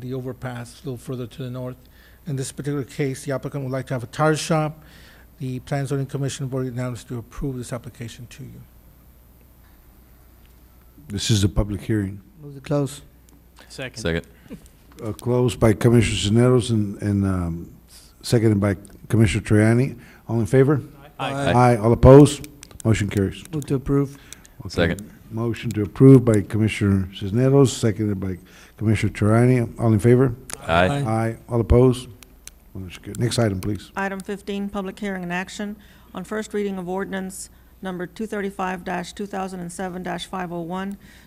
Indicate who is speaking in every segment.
Speaker 1: the overpass a little further to the north. In this particular case, the applicant would like to have a tire shop. The Plan and Zoning Commission voted unanimously to approve this application to you.
Speaker 2: This is a public hearing.
Speaker 3: Move to close.
Speaker 4: Second.
Speaker 5: Second.
Speaker 2: Uh, Closed by Commissioner Cisneros and, and um, seconded by Commissioner Traiani. All in favor?
Speaker 4: Aye.
Speaker 3: Aye.
Speaker 2: All opposed? Motion carries.
Speaker 3: Move to approve.
Speaker 2: Okay.
Speaker 5: Second.
Speaker 2: Motion to approve by Commissioner Cisneros, seconded by Commissioner Traiani. All in favor?
Speaker 5: Aye.
Speaker 2: Aye. All opposed? Motion carries. Next item, please.
Speaker 6: Item 15, public hearing and action on first reading of ordinance number 235-2007-501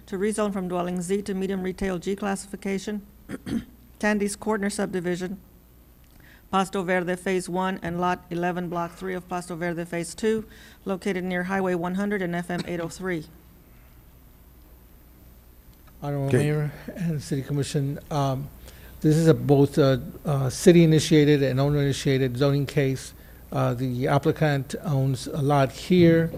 Speaker 6: to rezone from dwelling Z to medium retail G classification, Tandy's Corner subdivision, Pasto Verde Phase 1 and Lot 11, Block 3 of Pasto Verde Phase 2, located near Highway 100 and FM 803.
Speaker 1: Honorable
Speaker 2: Okay.
Speaker 1: Mayor and City Commission, um, this is a both uh, uh, city-initiated and owner-initiated zoning case. Uh, The applicant owns a lot here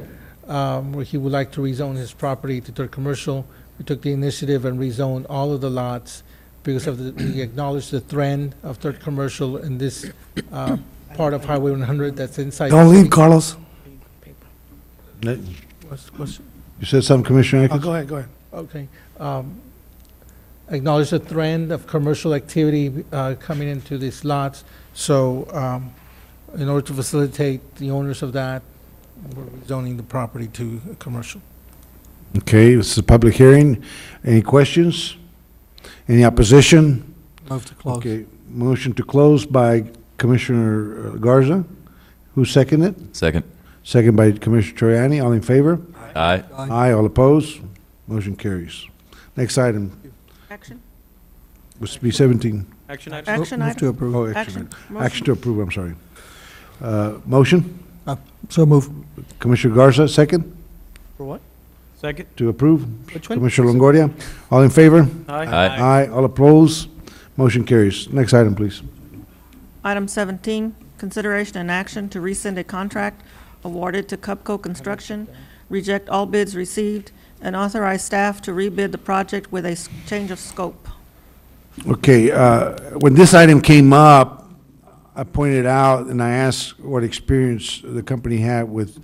Speaker 1: um, where he would like to rezone his property to third commercial. We took the initiative and rezoned all of the lots because of the, we acknowledge the trend of third commercial in this uh, part of Highway 100 that's inside. the
Speaker 3: Don't leave,
Speaker 1: city.
Speaker 3: Carlos.
Speaker 2: Let-
Speaker 1: What's- what's-
Speaker 2: You said something, Commissioner
Speaker 3: Oh,
Speaker 2: Atkins?
Speaker 3: go ahead, go ahead.
Speaker 1: Okay. um, Acknowledge the trend of commercial activity uh, coming into these lots. So um, in order to facilitate the owners of that, we're rezoning the property to uh, commercial.
Speaker 2: Okay, this is a public hearing. Any questions? Any opposition?
Speaker 3: Move to close.
Speaker 2: Okay, motion to close by Commissioner uh, Garza. Who seconded it?
Speaker 5: Second.
Speaker 2: Second by Commissioner Troyani. All in favor?
Speaker 5: Aye.
Speaker 3: Aye.
Speaker 2: Aye, all opposed? Motion carries. Next item,
Speaker 6: Action?
Speaker 2: which would be 17.
Speaker 4: Action item?
Speaker 6: Action
Speaker 3: Move to
Speaker 6: item?
Speaker 3: approve.
Speaker 2: Oh,
Speaker 6: Action. Motion.
Speaker 2: Action to approve, I'm sorry. Uh, Motion,
Speaker 3: So move.
Speaker 2: Commissioner Garza, second
Speaker 1: For what?
Speaker 4: Second.
Speaker 2: to approve.
Speaker 4: Which one?
Speaker 2: Commissioner Longoria, all in favor?
Speaker 5: Aye.
Speaker 2: Aye, all opposed? Motion carries. Next item, please.
Speaker 6: Item 17, consideration and action to rescind a contract awarded to Cupco Construction, reject all bids received, and authorize staff to rebid the project with a s- change of scope.
Speaker 2: Okay, uh, when this item came up, I pointed out and I asked what experience the company had with,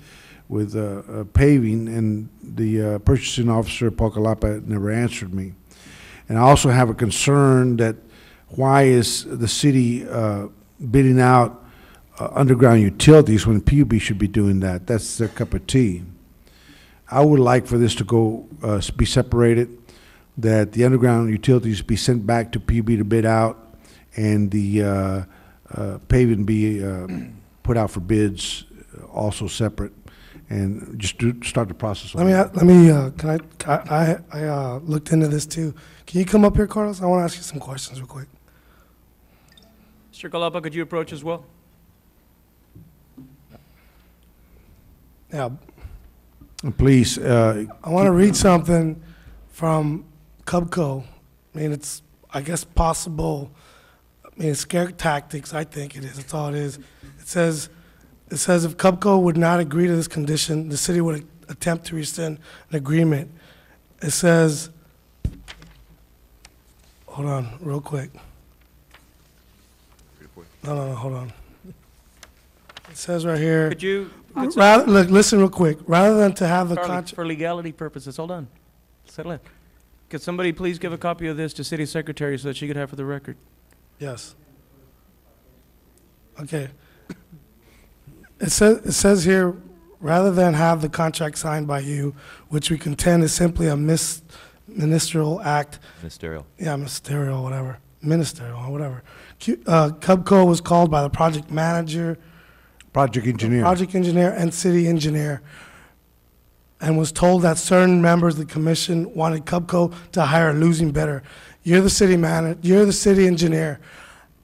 Speaker 2: with uh, uh, paving, and the uh, purchasing officer, Paul Calapa, never answered me. And I also have a concern that why is the city uh, bidding out uh, underground utilities when PUB should be doing that? That's their cup of tea. I would like for this to go, uh, be separated, that the underground utilities be sent back to PUB to bid out, and the uh, uh, paving be uh, put out for bids, uh, also separate, and just do, start the process.
Speaker 7: Let me, let me, uh, can I, can I, I, I, uh, looked into this too. Can you come up here, Carlos? I want to ask you some questions real quick.
Speaker 4: Mr. Galapa, could you approach as well?
Speaker 7: Yeah,
Speaker 2: Please, uh,
Speaker 7: I want to read something from Cubco. I mean, it's, I guess, possible. I mean, it's scare tactics. I think it is. That's all it is. It says, it says if Cubco would not agree to this condition, the city would attempt to rescind an agreement. It says, hold on, real quick. No, no, no, hold on. It says right here,
Speaker 4: Could you,
Speaker 7: rather, look, listen real quick. Rather than to have the
Speaker 4: Charlie,
Speaker 7: contract.
Speaker 4: for legality purposes, hold on. Settle it. Could somebody please give a copy of this to City Secretary so that she could have for the record?
Speaker 7: Yes. Okay. It says, it says here, rather than have the contract signed by you, which we contend is simply a mis- ministerial act,
Speaker 5: Ministerial.
Speaker 7: yeah, ministerial, whatever, ministerial, or whatever. Q- uh, Cubco was called by the project manager,
Speaker 2: project engineer.
Speaker 7: project engineer, and city engineer, and was told that certain members of the commission wanted Cubco to hire a losing bidder. You're the city manager, you're the city engineer.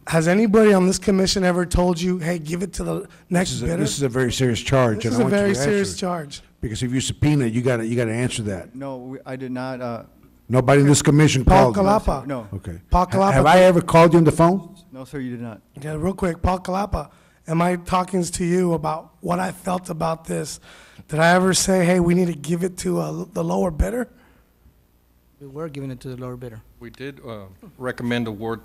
Speaker 7: Has anybody on this commission ever told you, hey, give it to the
Speaker 2: This
Speaker 7: next
Speaker 2: is,
Speaker 7: bidder?
Speaker 2: a, this is a very serious charge.
Speaker 7: This
Speaker 2: and
Speaker 7: is
Speaker 2: I
Speaker 7: a
Speaker 2: want you to
Speaker 7: very
Speaker 2: answer
Speaker 7: serious
Speaker 2: it.
Speaker 7: charge.
Speaker 2: Because if you subpoena, you gotta, you gotta answer that.
Speaker 8: No, we- I did not, uh,
Speaker 2: Nobody in this commission
Speaker 7: Paul
Speaker 2: called. them.
Speaker 7: Kalapa.
Speaker 8: no,
Speaker 2: Okay.
Speaker 7: Paul
Speaker 2: Ha- Have
Speaker 7: Kalapa.
Speaker 2: I ever called you on the phone?
Speaker 8: no, sir, you did not.
Speaker 7: Yeah, real quick, Paul Kalapa, am I talking to you about what I felt about this? Did I ever say, hey, we need to give it to uh, the lower bidder?
Speaker 3: We were giving it to the lower bidder.
Speaker 9: We did uh, recommend award